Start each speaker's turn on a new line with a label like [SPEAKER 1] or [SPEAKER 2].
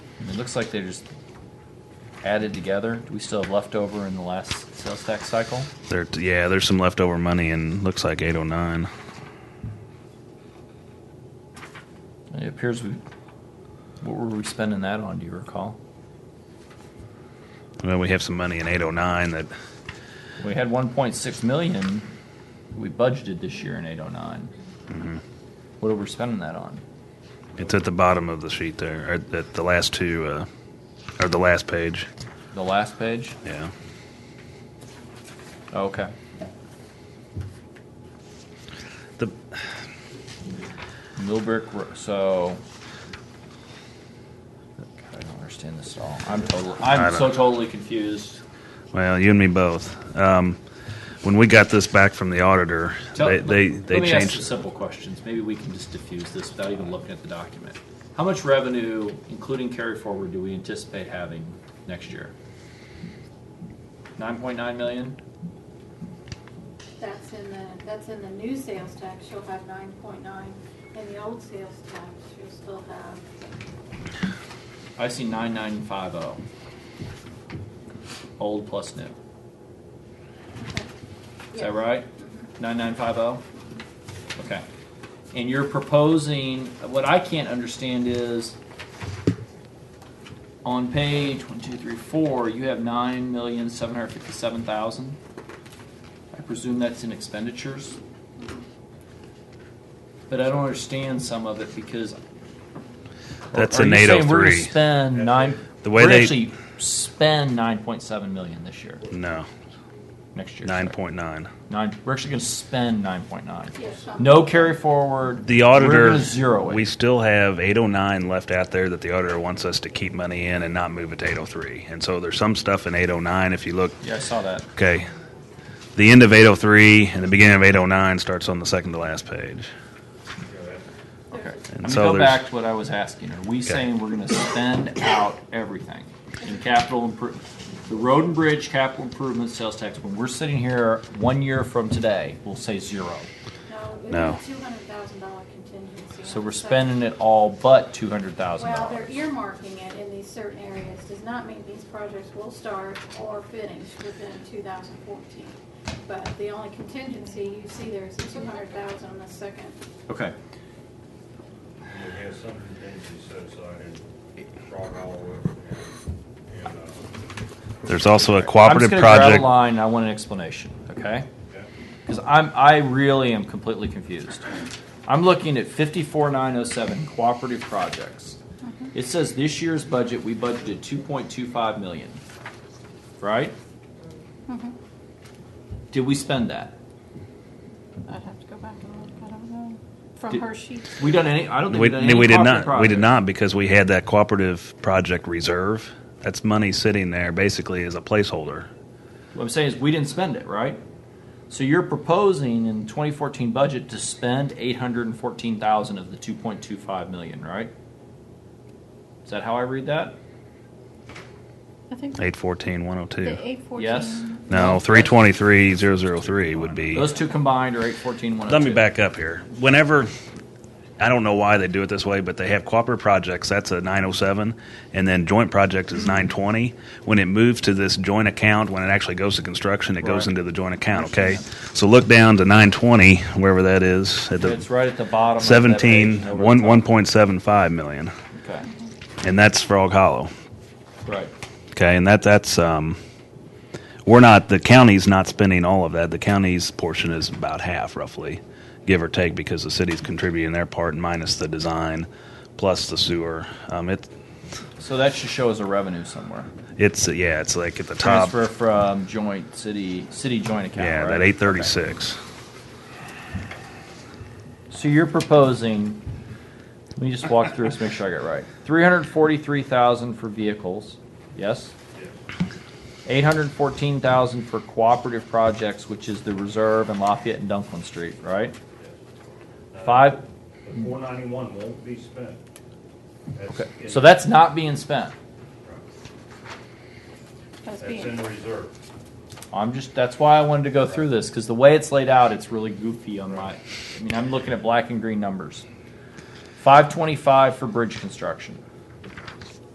[SPEAKER 1] looks like they're just added together. Do we still have leftover in the last sales tax cycle?
[SPEAKER 2] There, yeah, there's some leftover money in looks like 809.
[SPEAKER 1] It appears we. What were we spending that on? Do you recall?
[SPEAKER 2] Well, we have some money in 809 that
[SPEAKER 1] We had 1.6 million. We budgeted this year in 809.
[SPEAKER 2] Mm-hmm.
[SPEAKER 1] What are we spending that on?
[SPEAKER 2] it's at the bottom of the sheet there, or at the last two, uh, or the last page.
[SPEAKER 1] The last page.
[SPEAKER 2] Yeah.
[SPEAKER 1] Oh, okay.
[SPEAKER 2] The
[SPEAKER 1] Millbrook. Ro- So. God, I don't understand this at all. I'm totally.
[SPEAKER 2] I
[SPEAKER 1] I'm
[SPEAKER 2] don't-
[SPEAKER 1] so totally confused.
[SPEAKER 2] well, you and me both. Um, when we got this back from the auditor,
[SPEAKER 1] Tell-
[SPEAKER 2] they
[SPEAKER 1] let-
[SPEAKER 2] they,
[SPEAKER 1] let
[SPEAKER 2] they
[SPEAKER 1] me ask some
[SPEAKER 2] changed.
[SPEAKER 1] simple questions. Maybe we can just diffuse this without even looking at the document. How much revenue, including carry forward, do we anticipate having next year? Nine point nine million.
[SPEAKER 3] That's in the, that's in the new sales tax, she'll have nine point nine. In the old sales tax, she'll still have,
[SPEAKER 1] I see nine nine five zero. Old plus new. Is that
[SPEAKER 3] Yeah.
[SPEAKER 1] right? Nine nine five zero. Okay. And you're proposing. What I can't understand is. On page one, two, three, four, you have nine million seven hundred fifty-seven thousand. I presume that's in expenditures. But I don't understand some of it because.
[SPEAKER 2] That's
[SPEAKER 1] Are
[SPEAKER 2] in
[SPEAKER 1] you saying We're gonna
[SPEAKER 2] 803.
[SPEAKER 1] spend nine.
[SPEAKER 2] The way
[SPEAKER 1] we're
[SPEAKER 2] they-
[SPEAKER 1] actually spend nine point seven million this year,
[SPEAKER 2] No,
[SPEAKER 1] next year. sorry.
[SPEAKER 2] nine point nine.
[SPEAKER 1] Nine. We're actually gonna spend nine point nine.
[SPEAKER 3] yeah, some.
[SPEAKER 1] No carry forward.
[SPEAKER 2] The auditor
[SPEAKER 1] We're gonna zero it.
[SPEAKER 2] We still have 809 left out there that the auditor wants us to keep money in and not move it to 803. And so there's some stuff in 809. If you look,
[SPEAKER 1] yeah, I saw that.
[SPEAKER 2] okay, the end of 803 and the beginning of 809 starts on the second to last page.
[SPEAKER 1] Okay.
[SPEAKER 2] And
[SPEAKER 1] I'm
[SPEAKER 2] so
[SPEAKER 1] gonna go
[SPEAKER 2] there's-
[SPEAKER 1] back to what I was asking. Are we saying we're gonna spend out everything in capital improvement? The road and bridge capital improvement sales tax, when we're sitting here one year from today, we'll say zero.
[SPEAKER 2] No.
[SPEAKER 3] No, it's a two hundred thousand dollar contingency.
[SPEAKER 1] So
[SPEAKER 3] on
[SPEAKER 1] we're
[SPEAKER 3] the second.
[SPEAKER 1] spending it all but two hundred thousand
[SPEAKER 3] Well, they're
[SPEAKER 1] dollars.
[SPEAKER 3] earmarking it in these certain areas, does not mean these projects will start or finish within two thousand fourteen. But the only contingency you see there is the two hundred thousand on the second.
[SPEAKER 1] Okay.
[SPEAKER 4] We have some contingency set aside and brought all of it. And, and, uh,
[SPEAKER 2] There's also a
[SPEAKER 1] I'm just
[SPEAKER 2] cooperative
[SPEAKER 1] gonna grab
[SPEAKER 2] project.
[SPEAKER 1] a line. I want an explanation. Okay.
[SPEAKER 4] yeah.
[SPEAKER 1] Because I'm, I really am completely confused. I'm looking at fifty-four nine oh seven cooperative projects. It says this year's budget, we budgeted two point two five million, right? Did we spend that?
[SPEAKER 3] I'd have to go back and look, I don't know, from
[SPEAKER 1] Did-
[SPEAKER 3] her sheet.
[SPEAKER 1] We done any, I don't think we
[SPEAKER 2] We,
[SPEAKER 1] done any
[SPEAKER 2] we did
[SPEAKER 1] cooperative
[SPEAKER 2] not. We did
[SPEAKER 1] projects.
[SPEAKER 2] not because we had that cooperative project reserve. That's money sitting there basically as a placeholder.
[SPEAKER 1] What I'm saying is, we didn't spend it, right? So you're proposing in twenty fourteen budget to spend eight hundred and fourteen thousand of the two point two five million, right? Is that how I read that?
[SPEAKER 3] I think
[SPEAKER 2] 814, 102.
[SPEAKER 3] eight
[SPEAKER 1] Yes?
[SPEAKER 2] No, 323, 003 would be.
[SPEAKER 1] Those two combined are eight fourteen one oh two.
[SPEAKER 2] Let me back up here. Whenever, I don't know why they do it this way, but they have cooperative projects. That's a 907, and then joint project is 920. When it moves to this joint account, when it actually goes to construction, it goes
[SPEAKER 1] Right.
[SPEAKER 2] into the joint account. Okay, so look down to 920, wherever that is, at
[SPEAKER 1] It's
[SPEAKER 2] the
[SPEAKER 1] right at the bottom. of that
[SPEAKER 2] 17,
[SPEAKER 1] page, over the
[SPEAKER 2] one
[SPEAKER 1] top.
[SPEAKER 2] 1.75 million,
[SPEAKER 1] Okay,
[SPEAKER 2] and that's Frog Hollow.
[SPEAKER 1] right.
[SPEAKER 2] Okay, and that that's um, we're not the county's not spending all of that. The county's portion is about half, roughly, give or take, because the city's contributing their part minus the design, plus the sewer. Um, it
[SPEAKER 1] So that should show as a revenue somewhere.
[SPEAKER 2] it's yeah, it's like at the top.
[SPEAKER 1] Transfer from joint city, city joint account,
[SPEAKER 2] Yeah,
[SPEAKER 1] right?
[SPEAKER 2] that eight thirty six.
[SPEAKER 1] So you're proposing, let me just walk through this, make sure I got it right. Three hundred forty-three thousand for vehicles, yes? Eight hundred fourteen thousand for cooperative projects, which is the reserve and Lafayette and Dunklin Street, right? Five,
[SPEAKER 4] The four ninety-one won't be spent. That's
[SPEAKER 1] okay,
[SPEAKER 4] in-
[SPEAKER 1] so that's not being spent.
[SPEAKER 3] That's
[SPEAKER 4] That's in reserve.
[SPEAKER 1] I'm just that's why I wanted to go through this because the way it's laid out, it's really goofy on my. I mean, I'm looking at black and green numbers. Five twenty-five for bridge construction.